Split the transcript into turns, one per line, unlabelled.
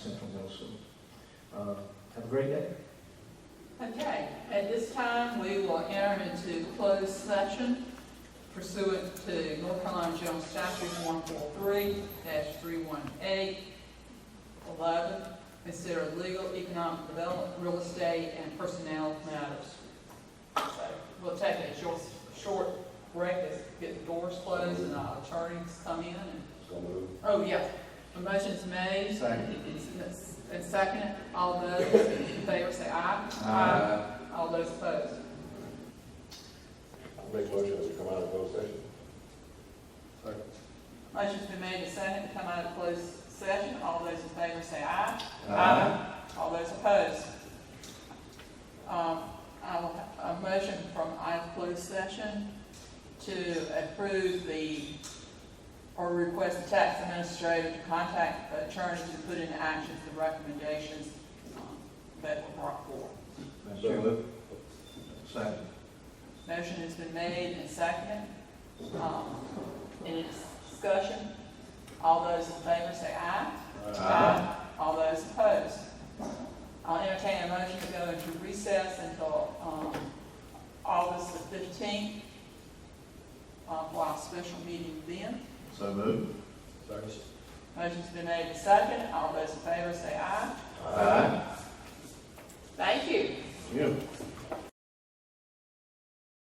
Central Middle School. Uh, Have a great day.
Okay, at this time, we will enter into closed session pursuant to North Carolina General Statute one four three three one eight eleven, consider legal, economic development, real estate, and personnel matters. So we'll take a short, short break, as get the doors closed and our attorneys come in and,
So moved.
oh, yeah. The motion's made,
Second.
and second, all those in favor say aye. Uh, All those opposed?
Make motion that we come out of closed session.
Motion's been made and seconded to come out of closed session. All those in favor say aye. All those opposed? Um, I will have a motion from out of closed session to approve the, or request the tax administrator to contact the attorney to put into action the recommendations um, that were brought forth.
Madam
So
Chairman.
moved.
Second.
Motion has been made and seconded. Um, Any discussion? All those in favor say aye. All those opposed? I'll entertain a motion to go into recess until um, August the 15th, uh, for our special meeting then.
So moved.
Motion's been made and seconded. All those in favor say aye. Thank you.
You.